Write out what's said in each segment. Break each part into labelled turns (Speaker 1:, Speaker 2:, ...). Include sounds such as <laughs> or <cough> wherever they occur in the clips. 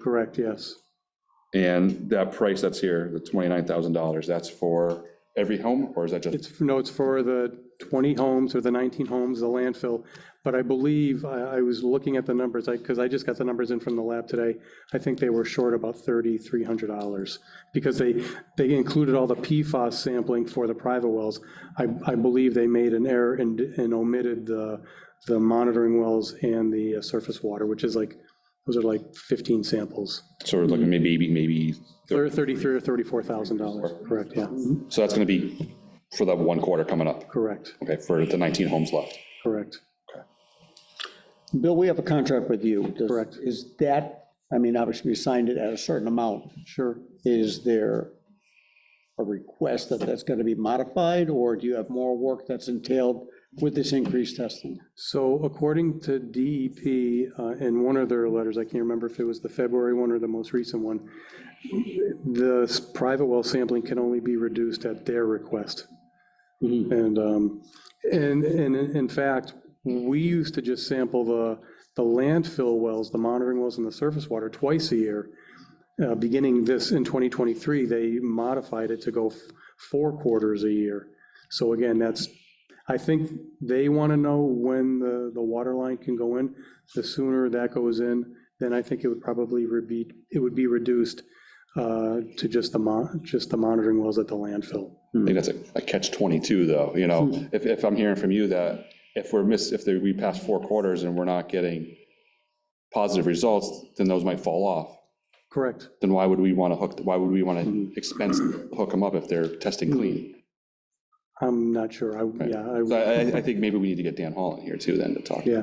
Speaker 1: correct, yes.
Speaker 2: And that price that's here, the $29,000, that's for every home, or is that just,
Speaker 1: It's, no, it's for the 20 homes or the 19 homes, the landfill. But I believe, I, I was looking at the numbers, I, because I just got the numbers in from the lab today. I think they were short about $3,300 because they, they included all the PFAS sampling for the private wells. I, I believe they made an error and, and omitted the, the monitoring wells and the uh, surface water, which is like, those are like 15 samples.
Speaker 2: sort of like maybe, maybe,
Speaker 1: They're 33 or $34,000, correct, yeah,
Speaker 2: so that's going to be for that one quarter coming up,
Speaker 1: correct,
Speaker 2: okay, for the 19 homes left?
Speaker 1: correct.
Speaker 3: Bill, we have a contract with you. Does-
Speaker 1: Correct.
Speaker 3: Is that, I mean, obviously, we signed it at a certain amount.
Speaker 1: Sure.
Speaker 3: Is there a request that that's going to be modified, or do you have more work that's entailed with this increased testing?
Speaker 1: So according to DEP, uh, in one of their letters, I can't remember if it was the February one or the most recent one, the s- private well sampling can only be reduced at their request. And, um, and, and in in fact, we used to just sample the, the landfill wells, the monitoring wells and the surface water twice a year. Uh, Beginning this, in 2023, they modified it to go f- four quarters a year. So again, that's, I think they want to know when the, the water line can go in. The sooner that goes in, then I think it would probably be, it would be reduced uh, to just the, mon- just the monitoring wells at the landfill.
Speaker 2: I think that's a- a catch 22, though, you know, if, if I'm hearing from you that if we're miss, if there- we pass four quarters and we're not getting positive results, then those might fall off.
Speaker 1: Correct.
Speaker 2: Then why would we want to hook, why would we want to expense, hook them up if they're testing clean?
Speaker 1: I'm not sure. I, yeah, I.
Speaker 2: So I, I- I think maybe we need to get Dan Hall in here too then to talk.
Speaker 1: Yeah.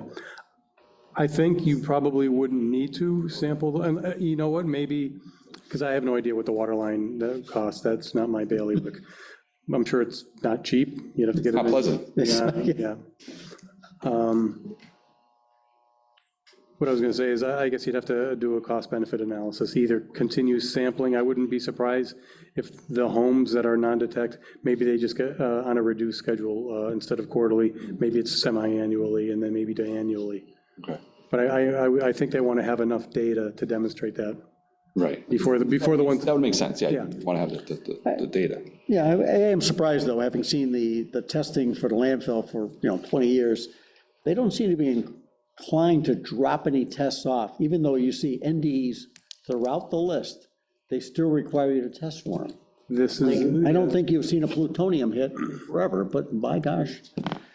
Speaker 1: I think you probably wouldn't need to sample, and uh, you know what, maybe, because I have no idea what the water line that costs, that's not my bailiwick. I'm sure it's not cheap, you'd have to get. it
Speaker 2: Not
Speaker 1: in-
Speaker 2: pleasant.
Speaker 1: Yeah, yeah. Um, What I was going to say is, I I guess you'd have to do a cost-benefit analysis, either continue sampling, I wouldn't be surprised if the homes that are non-detect, maybe they just get uh, on a reduced schedule uh, instead of quarterly, maybe it's semi-annually, and then maybe to annually.
Speaker 2: Okay.
Speaker 1: But I, I- I, I think they want to have enough data to demonstrate that
Speaker 2: Right.
Speaker 1: before the, before the one,
Speaker 2: That would make sense, yeah, you
Speaker 1: Yeah.
Speaker 2: want to have the, the- the, the data.
Speaker 3: Yeah, I I am surprised, though, having seen the, the testing for the landfill for, you know, 20 years, they don't seem to be inclined to drop any tests off, even though you see NDEs throughout the list, they still require you to test for them.
Speaker 1: this is.
Speaker 3: I don't think you've seen a plutonium hit forever, but by gosh,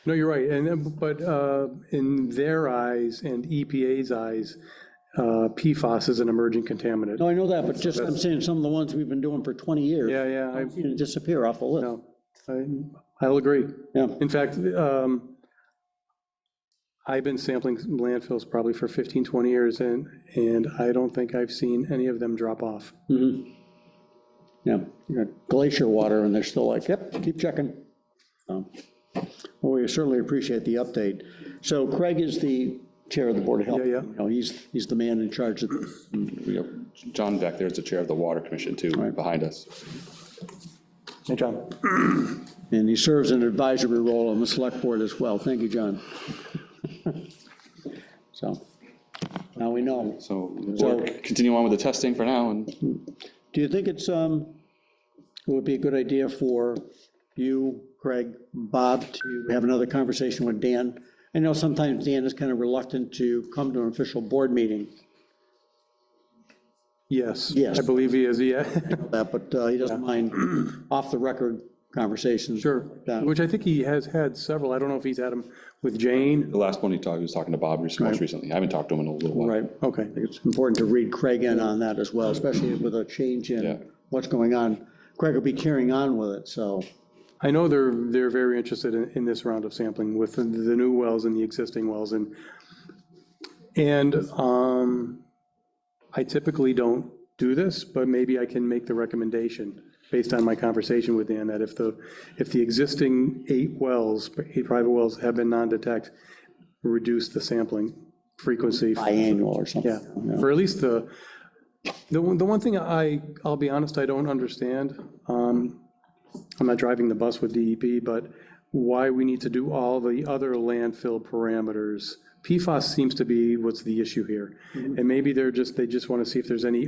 Speaker 1: No, you're right, and, uh, but uh, in their eyes and EPA's eyes, uh, PFAS is an emerging contaminant.
Speaker 3: no, I know that, but just, I'm saying some of the ones we've been doing for 20 years.
Speaker 1: Yeah, yeah, I-
Speaker 3: you know, Disappear off the list.
Speaker 1: no, I, I'll agree.
Speaker 3: Yeah,
Speaker 1: In fact, um, I've been sampling landfills probably for 15, 20 years, and, and I don't think I've seen any of them drop off.
Speaker 3: yeah, you got glacier water, and they're still like, yep, keep checking. So, Well, we certainly appreciate the update. So Craig is the chair of the Board of Health.
Speaker 1: Yeah, yeah.
Speaker 3: You know, he's, he's the man in charge of this.
Speaker 2: We have John back there is the chair of the Water Commission too, behind us.
Speaker 3: Hey, John. And he serves an advisory role on the select board as well. Thank you, John. <laughs> So, now we know.
Speaker 2: So
Speaker 3: So-
Speaker 2: we'll continue on with the testing for now and
Speaker 3: Do you think it's, um, it would be a good idea for you, Craig, Bob, to have another conversation with Dan? I know sometimes Dan is kind of reluctant to come to an official board meeting,
Speaker 1: Yes.
Speaker 3: Yes.
Speaker 1: I believe he is, yeah,
Speaker 3: that, but uh, he doesn't mind off-the-record
Speaker 1: <laughs>
Speaker 3: conversations.
Speaker 1: sure,
Speaker 3: Yeah.
Speaker 1: which I think he has had several, I don't know if he's had them with Jane,
Speaker 2: the last one he talked, he was talking to Bob most recently. I haven't talked to him in a little while.
Speaker 3: Right.
Speaker 1: okay.
Speaker 3: It's important to read Craig in on that as well, especially with a change
Speaker 2: Yeah.
Speaker 3: in what's going on. Craig will be carrying on with it, so,
Speaker 1: I know they're, they're very interested in, in this round of sampling with the the new wells and the existing wells and, and um, I typically don't do this, but maybe I can make the recommendation based on my conversation with Dan that if the, if the existing eight wells, eight private wells have been non-detect, reduce the sampling frequency.
Speaker 3: biannual or something.
Speaker 1: Yeah, for at least the, the one, the one thing I, I'll be honest, I don't understand, um, I'm not driving the bus with DEP, but why we need to do all the other landfill parameters PFAS seems to be what's the issue here. And maybe they're just, they just want to see if there's any